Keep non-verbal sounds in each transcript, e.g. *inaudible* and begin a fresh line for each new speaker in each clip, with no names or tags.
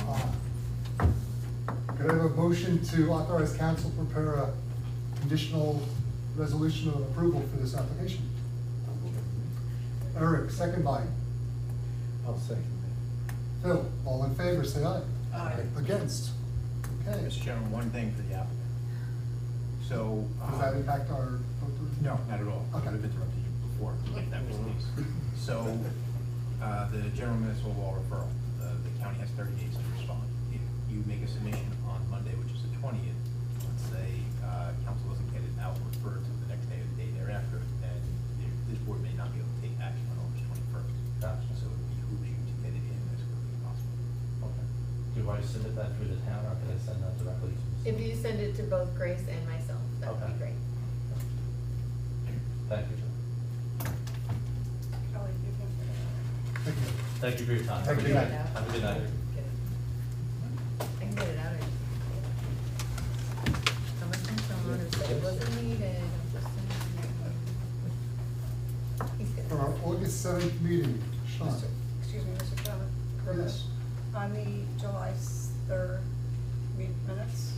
uh, Could I have a motion to authorize council to prepare a conditional resolution of approval for this application? Eric, second by
I'll second
Phil. All in favor, say aye.
Aye.
Against? Okay.
Mr.
Does
Chairman, one thing for the applicant. So. uh,
that impact our vote?
No, not at all. I would have
Okay.
interrupted you before, if that was the case. So, uh, the general municipal law referral, uh, the county has thirty days to respond. If you make a submission on Monday, which is the twentieth, let's say, uh, council doesn't get it out, refer to the next day or the day thereafter, then the- this board may not be able to take action on August twenty-first. So it behooves you to get it in as quickly as possible.
Okay. Do I submit that through the town, or can I send that directly to?
If you send it to both Grace and myself, that would
Okay.
be great.
Thank you, Jim.
Kelly, Oh, you can-
Thank you.
Thank you for your time.
Thank you.
Have a good night.
Get it. I can get it out. of- Someone sent someone who said it wasn't needed. I'm just saying. He's good.
For our August seventh meeting, Sean.
Mr. Excuse me, Mr. Chairman.
Yes.
On the July s- third meet minutes,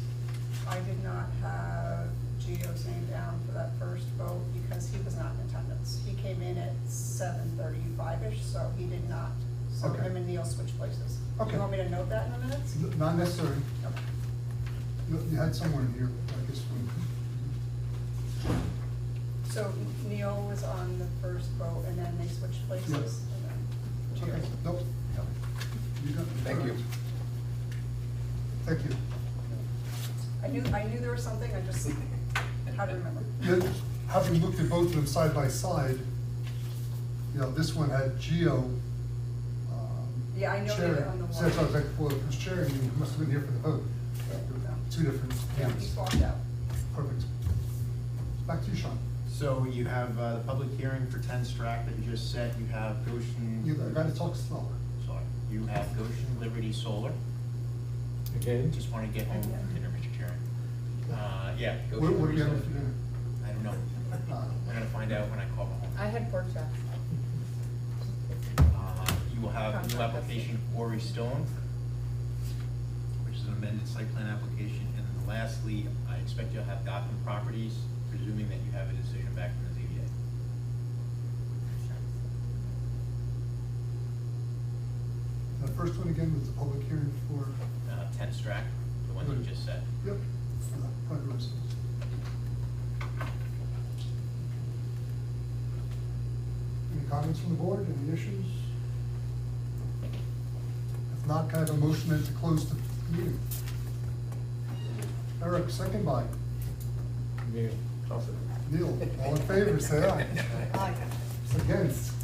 I did not have Gio's name down for that first vote because he was not in attendance. He came in at seven thirty-five-ish, so he did not. So
Okay.
him and Neil switched places.
Okay.
You want me to note that in the minutes?
N- Not necessary.
Okay.
You you had someone here, I guess. we-
So Neil was on the first vote and then they switched places. and then
Okay,
Gio-
nope. You got-
Thank you.
Thank you.
I knew, I knew there was something, I just had to remember.
You- Having looked at both of them side by side, you know, this one had Geo. um,
Yeah, I know they were
chairing.
on the
So that's why I was
wall.
like, well, if it was chairing, you must have been here for the vote. Two different
Yeah, he
hands.
swapped out.
Perfect. Back to you, Sean.
So you have uh, the public hearing for 10 Strack that you just said, you have Goshen.
You gotta talk slower.
Sorry, you have Goshen Liberty Solar,
Again?
just want to get home for dinner, Mr. Chairman. Uh, yeah. Goshen
What, what do
Liberty
you have
Solar.
for dinner?
I
*laughs*
don't know,
Uh,
we're gonna find out when I call home.
I had pork chops.
Uh, You will have new application Quarry Stone, which is an amended site plan application. And then lastly, I expect you'll have Gotham Properties, presuming that you have a decision back from the ZBA.
The first one again was the public hearing for,
Uh, 10 Strack, the one you just said.
yep, for the private residence. Any comments from the board, any issues? If not, can I have a motion then to close the meeting? Eric, second by
Neil.
Neil, all in favor, say aye. Against?